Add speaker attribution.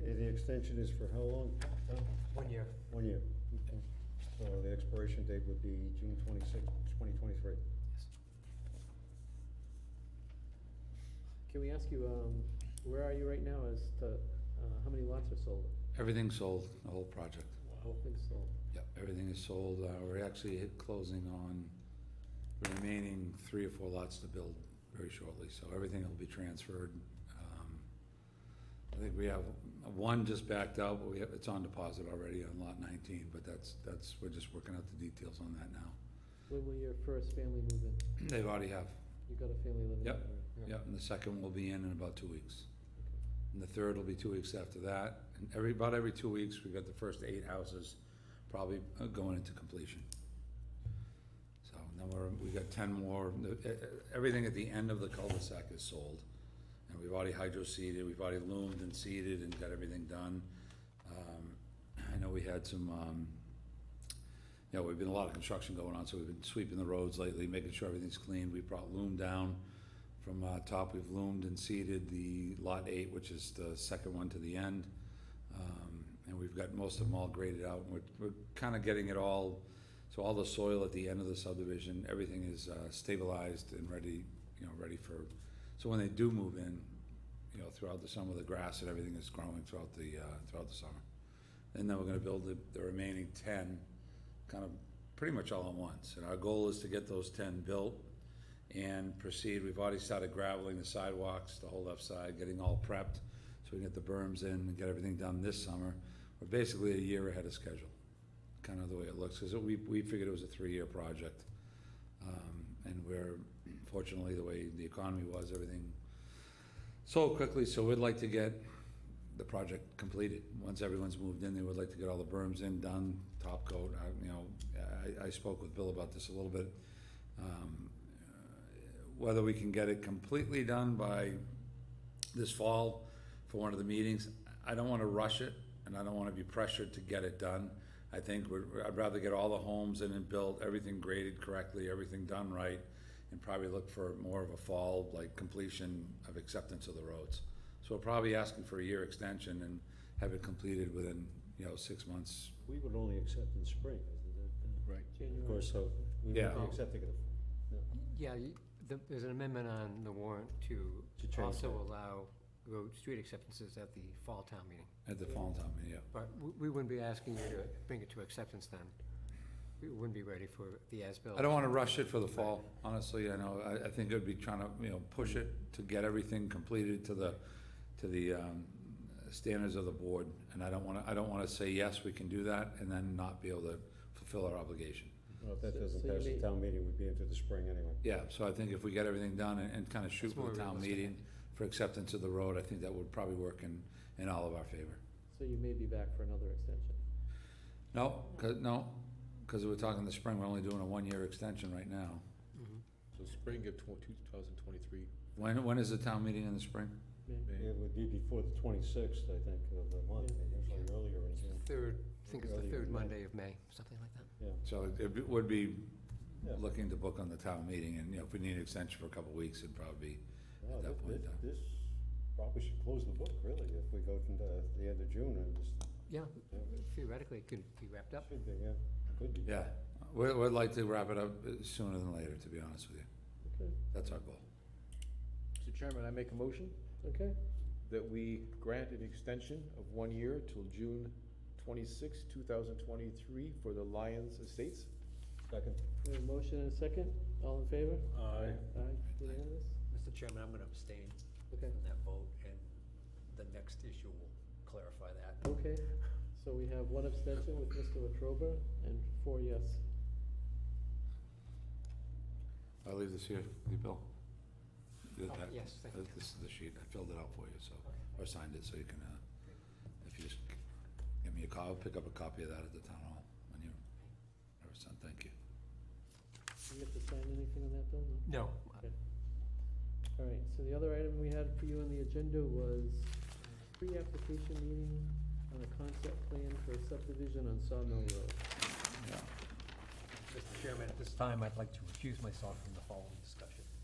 Speaker 1: Okay, the extension is for how long?
Speaker 2: One year.
Speaker 1: One year. Okay. So the expiration date would be June twenty-sixth, twenty twenty-three.
Speaker 3: Can we ask you, um, where are you right now as to, uh, how many lots are sold?
Speaker 4: Everything's sold, the whole project.
Speaker 3: Whole thing's sold.
Speaker 4: Yep, everything is sold. Uh, We're actually hit closing on the remaining three or four lots to build very shortly, so everything will be transferred. Um, I think we have, one just backed out, but we have, it's on deposit already on lot nineteen, but that's, that's, we're just working out the details on that now.
Speaker 3: When will your first family move in?
Speaker 4: They've already have,
Speaker 3: You got a family living in there?
Speaker 4: Yep. yep, and the second will be in in about two weeks. And the third will be two weeks after that, and every, about every two weeks, we've got the first eight houses probably uh, going into completion. So, and then we're, we got ten more, The- e- e- everything at the end of the cul-de-sac is sold. And we've already hydro-seeded, we've already loomed and seeded and got everything done. Um, I know we had some, um, you know, we've been a lot of construction going on, so we've been sweeping the roads lately, making sure everything's clean, we brought loom down. From uh, top, we've loomed and seeded the lot eight, which is the second one to the end. Um, And we've got most of them all graded out, and we're, we're kind of getting it all, so all the soil at the end of the subdivision, everything is uh, stabilized and ready, you know, ready for, so when they do move in, you know, throughout the summer, the grass and everything is growing throughout the, uh, throughout the summer. And then we're gonna build the, the remaining ten, kind of, pretty much all at once. And our goal is to get those ten built and proceed. We've already started graveling the sidewalks, the whole left side, getting all prepped so we can get the berms in and get everything done this summer. We're basically a year ahead of schedule, kind of the way it looks, because we, we figured it was a three-year project. Um, And we're, fortunately, the way the economy was, everything sold quickly, so we'd like to get the project completed. Once everyone's moved in, they would like to get all the berms in, done, top coat, I, you know, I, I spoke with Bill about this a little bit. Um, whether we can get it completely done by this fall for one of the meetings. I don't wanna rush it, and I don't wanna be pressured to get it done. I think we're, I'd rather get all the homes in and built, everything graded correctly, everything done right, and probably look for more of a fall, like completion of acceptance of the roads. So we're probably asking for a year extension and have it completed within, you know, six months.
Speaker 1: We would only accept in spring, isn't
Speaker 4: Right.
Speaker 1: it?
Speaker 3: January.
Speaker 1: Of course, so we would be
Speaker 4: Yeah.
Speaker 1: accepting it.
Speaker 2: Yeah, you- the- there's an amendment on the warrant to
Speaker 1: To change
Speaker 2: also
Speaker 1: that.
Speaker 2: allow road, street acceptances at the fall town meeting.
Speaker 4: At the fall time, yeah.
Speaker 2: But we- we wouldn't be asking you to bring it to acceptance then. We wouldn't be ready for the as-built.
Speaker 4: I don't wanna rush it for the fall, honestly, I know, I, I think it'd be trying to, you know, push it to get everything completed to the, to the, um, standards of the board, and I don't wanna, I don't wanna say, yes, we can do that, and then not be able to fulfill our obligation.
Speaker 1: Well, if that
Speaker 3: So-
Speaker 1: doesn't
Speaker 3: so you
Speaker 1: pass the
Speaker 3: may-
Speaker 1: town meeting, we'd be into the spring anyway.
Speaker 4: Yeah, so I think if we get everything done and, and kinda shoot
Speaker 2: It's
Speaker 4: for
Speaker 2: more
Speaker 4: the town
Speaker 2: realistic.
Speaker 4: meeting for acceptance of the road, I think that would probably work in, in all of our favor.
Speaker 3: So you may be back for another extension.
Speaker 4: No, 'cause- no, cause we're talking the spring, we're only doing a one-year extension right now.
Speaker 2: Mhm.
Speaker 5: So spring of tw- 2023.
Speaker 4: When, when is the town meeting in the spring?
Speaker 3: May-
Speaker 5: May.
Speaker 1: It would be before the twenty-sixth, I think, of the month,
Speaker 3: Yeah.
Speaker 1: usually earlier in June.
Speaker 2: Third, I think it's the
Speaker 1: Earlier
Speaker 2: third
Speaker 1: in May.
Speaker 2: Monday of May, something like that.
Speaker 4: So it- it would be
Speaker 1: Yeah.
Speaker 4: looking to book on the town meeting, and, you know, if we need an extension for a couple of weeks, it'd probably be,
Speaker 1: Wow,
Speaker 4: at that
Speaker 1: thi-
Speaker 4: point uh, in
Speaker 1: thi-
Speaker 4: time.
Speaker 1: This probably should close the book, really, if we go to the- the end of June and just,
Speaker 2: Yeah,
Speaker 1: yeah,
Speaker 2: theoretically, it could be wrapped up.
Speaker 1: should be, yeah, could be.
Speaker 4: yeah. We'd, we'd like to wrap it up uh, sooner than later, to be honest with you.
Speaker 3: Okay,
Speaker 4: That's our goal.
Speaker 5: Mr. Chairman, I make a motion
Speaker 3: okay,
Speaker 5: that we grant an extension of one year till June 26, 2023 for the Lions Estates.
Speaker 1: Second.
Speaker 3: we have a motion and a second, all in favor?
Speaker 1: Uh,
Speaker 5: Aye.
Speaker 3: Aye, unanimous?
Speaker 6: Mr. Chairman, I'm gonna abstain
Speaker 3: Okay,
Speaker 6: from that vote, and the next issue will clarify that.
Speaker 3: okay, so we have one abstention with Mr. Latrobe and four yes.
Speaker 4: I'll leave this here, you, Bill. You got
Speaker 2: Oh,
Speaker 4: that?
Speaker 2: yes, thank
Speaker 4: Uh, This is the sheet, I filled it out for you, so, or signed it, so you can, uh, if you just give me a call, pick up a copy of that at the town hall when you, or son, thank you.
Speaker 3: Do you have to sign anything on that bill? No?
Speaker 2: No,
Speaker 3: All right, so the other item we had for you on the agenda was a pre-application meeting on a concept plan for a subdivision on Sawmill Road.
Speaker 4: Yeah.
Speaker 6: Mr. Chairman, at this time, I'd like to recuse myself from the following discussion.